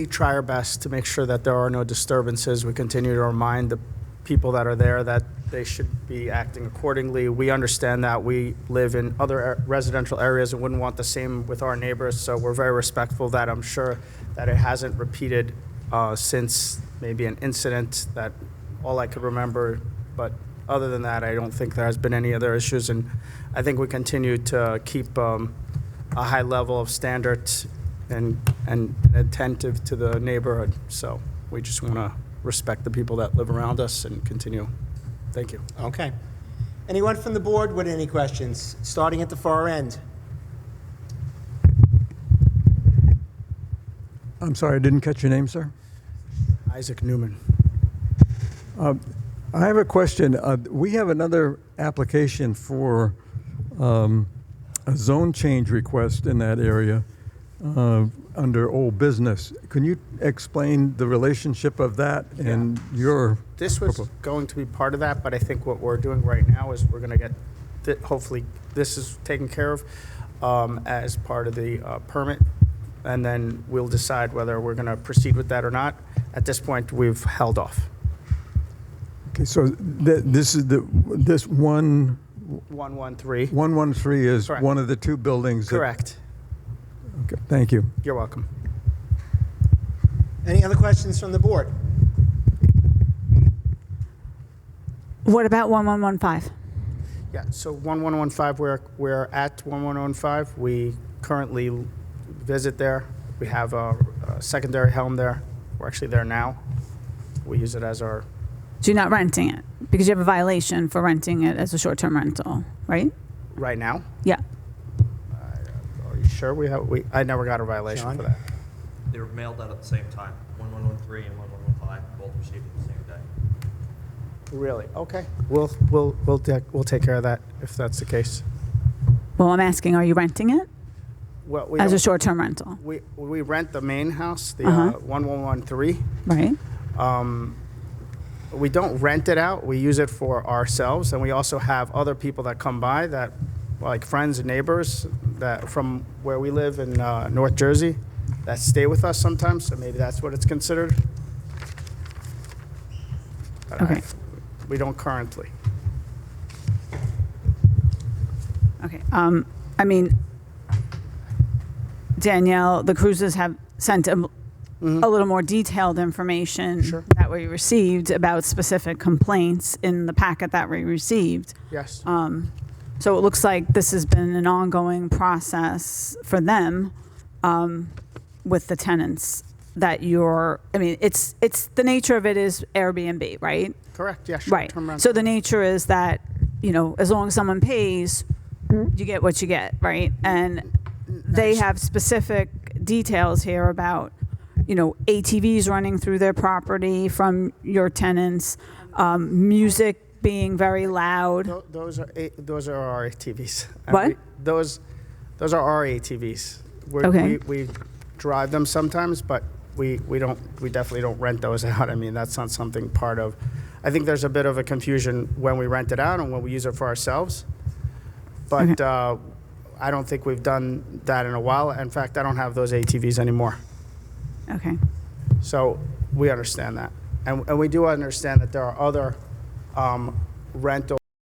We try our best to make sure that there are no disturbances. We continue to remind the people that are there that they should be acting accordingly. We understand that we live in other a- residential areas and wouldn't want the same with our neighbors, so we're very respectful that I'm sure that it hasn't repeated uh, since maybe an incident that all I could remember, but other than that, I don't think there has been any other issues, and I think we continue to keep um, a high level of standards and, and attentive to the neighborhood. So we just want to respect the people that live around us and continue. Thank you. Okay. Anyone from the board with any questions, starting at the far end? I'm sorry, I didn't catch your name, sir. Isaac Newman. I have a question. Uh, We have another application for um, a zone change request in that area uh, under old business. Can you explain the relationship of that and your, This was going to be part of that, but I think what we're doing right now is we're going to get, thi- hopefully, this is taken care of um, as part of the uh, permit. And then we'll decide whether we're going to proceed with that or not. At this point, we've held off. okay, so th- this is the, this one, 113. 113 is Correct. one of the two buildings? that- Correct. Okay, Thank you. You're welcome. Any other questions from the board? What about 1115? Yeah, so 1115, we're, we're at 1115. We currently visit there. We have a a secondary home there. We're actually there now. We use it as our, So you're not renting it because you have a violation for renting it as a short term rental, right? right now. Yeah. Are you sure we have, we, I never got a violation John? for that. They were mailed out at the same time, 1113 and 1115, both received on the same day. Really? Okay. We'll, we'll, we'll, ta- we'll take care of that if that's the case. Well, I'm asking, are you renting it Well, we, as a don't- short term rental, we, we rent the main house, the Uh-huh. uh, 1113. right? we don't rent it out. We use it for ourselves, and we also have other people that come by that, like friends and neighbors that from where we live in uh, North Jersey, that stay with us sometimes. So maybe that's what it's considered. But I- Okay. we don't currently. Okay. Um, I mean, Danielle, the cruises have sent a, a little more detailed information Sure. that we received about specific complaints in the packet that we received. Yes. Uh, So it looks like this has been an ongoing process for them um, with the tenants that you're, I mean, it's, it's, the nature of it is Airbnb, right? Correct. Yeah. Sure. Right. So the nature is that, you know, as long as someone pays, you get what you get, right? And they have specific details here about, you know, ATVs running through their property from your tenants, um, music being very loud. Tho- Those are A- those are our ATVs. And What? we- Those those are our ATVs. We're, Okay. We, we drive them sometimes, but we, we don't we definitely don't rent those out. I mean, that's not something part of. I think there's a bit of a confusion when we rent it out and when we use it for ourselves. But uh, I don't think we've done that in a while. In fact, I don't have those ATVs anymore. Okay. So we understand that. And, and we do understand that there are other um, rental